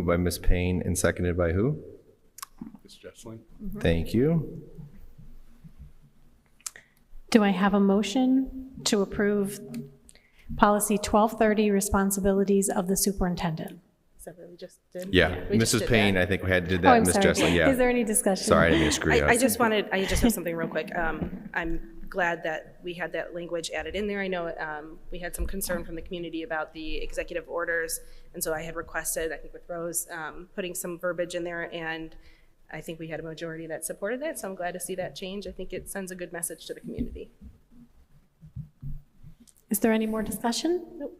Moved by Ms. Payne and seconded by who? Ms. Jessling? Thank you. Do I have a motion to approve policy 1230, responsibilities of the superintendent? Is that what we just did? Yeah, We just Mrs. did Payne, that. I think we had, did Oh, that, I'm Ms. sorry. Jessling, Is Uh, yeah. there any discussion? Sorry, I didn't mean to screw you I, I up. just wanted, I just have something real quick. Um, I'm glad that we had that language added in there. I know, um, we had some concern from the community about the executive orders. And so I had requested, I think with Rose, um, putting some verbiage in there and I think we had a majority that supported that. So I'm glad to see that change. I think it sends a good message to the community. Is there any more discussion? Nope.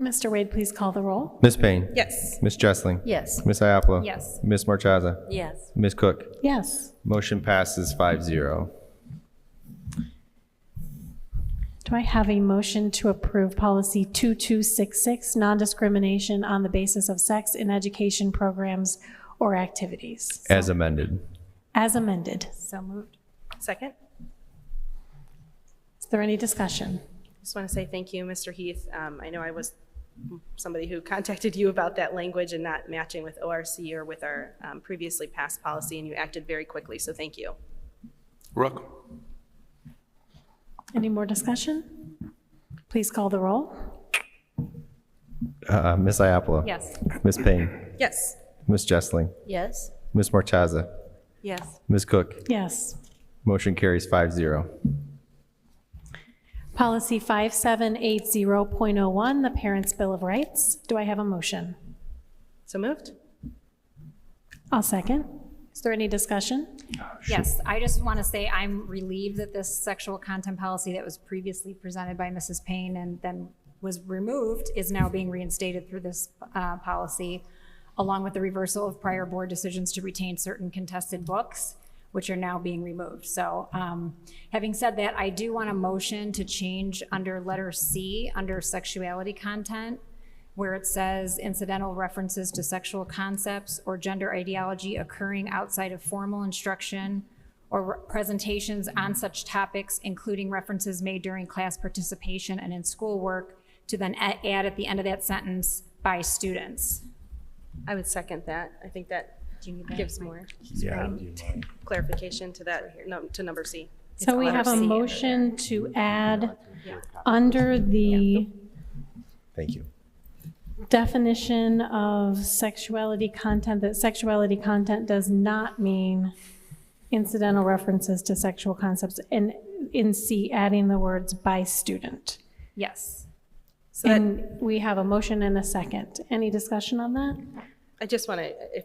Mr. Wade, please call the roll. Ms. Payne? Yes. Ms. Jessling? Yes. Ms. Iapolo? Yes. Ms. Marchaza? Yes. Ms. Cook? Yes. Motion passes five zero. Do I have a motion to approve policy 2266, non-discrimination on the basis of sex in education programs or activities, As amended. as amended? So moved. Second? Is there any discussion? Just want to say thank you, Mr. Heath. Um, I know I was somebody who contacted you about that language and not matching with ORC or with our um, previously passed policy, and you acted very quickly, so thank you. Rook? Any more discussion? Please call the roll. Uh, Ms. Iapolo? Yes. Ms. Payne? Yes. Ms. Jessling? Yes. Ms. Marchaza? Yes. Ms. Cook? Yes. Motion carries five zero. Policy 5780.01, the Parents' Bill of Rights. Do I have a motion? So moved? I'll second. Is there any discussion? Yes, I just want to say I'm relieved that this sexual content policy that was previously presented by Mrs. Payne and then was removed is now being reinstated through this uh, policy, along with the reversal of prior board decisions to retain certain contested books, which are now being removed. So um, having said that, I do want a motion to change under letter C, under sexuality content, where it says incidental references to sexual concepts or gender ideology occurring outside of formal instruction or presentations on such topics, including references made during class participation and in schoolwork, to then a- add at the end of that sentence, by students. I would second that. I think that Do you need that? gives more Yeah. clarification to that, no, to number C. So we have a motion to add under the Thank you. definition of sexuality content, that sexuality content does not mean incidental references to sexual concepts, and in C, adding the words "by student." Yes. So that- And we have a motion and a second. Any discussion on that? I just want to,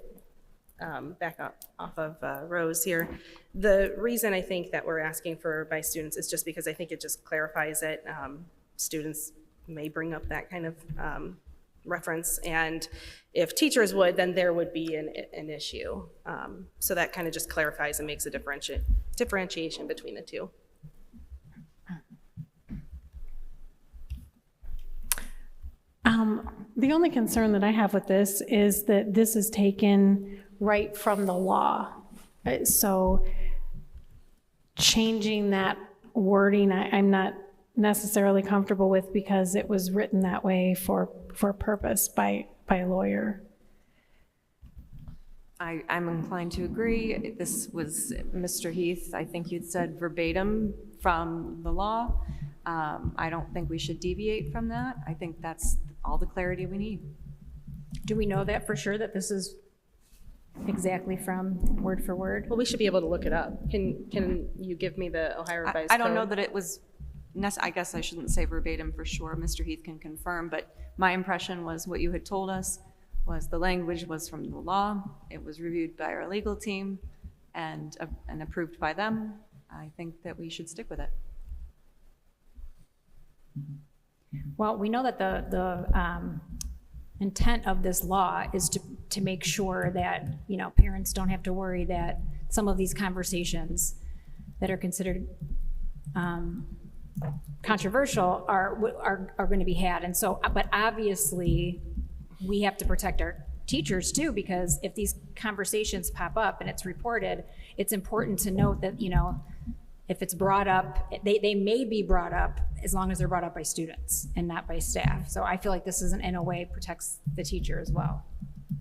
um, back up off of uh, Rose here. The reason I think that we're asking for by students is just because I think it just clarifies it. Um, Students may bring up that kind of um, reference, and if teachers would, then there would be an, an issue. Um, So that kind of just clarifies and makes a differenti- differentiation between the two. Um, The only concern that I have with this is that this is taken right from the law. Uh, So changing that wording, I- I'm not necessarily comfortable with because it was written that way for, for purpose by, by a lawyer. I, I'm inclined to agree. This was, Mr. Heath, I think you'd said verbatim from the law. Um, I don't think we should deviate from that. I think that's all the clarity we need. Do we know that for sure, that this is exactly from word for word? Well, we should be able to look it up. Can, can you give me the Ohio I, Revised I don't know Code? that it was, nec- I guess I shouldn't say verbatim for sure. Mr. Heath can confirm, but my impression was what you had told us was the language was from the law. It was reviewed by our legal team and, uh, and approved by them. I think that we should stick with it. Well, we know that the, the um, intent of this law is to, to make sure that, you know, parents don't have to worry that some of these conversations that are considered um, controversial are, are, are going to be had. And so, but obviously, we have to protect our teachers too, because if these conversations pop up and it's reported, it's important to note that, you know, if it's brought up, they, they may be brought up as long as they're brought up by students and not by staff. So I feel like this is, in a way, protects the teacher as well.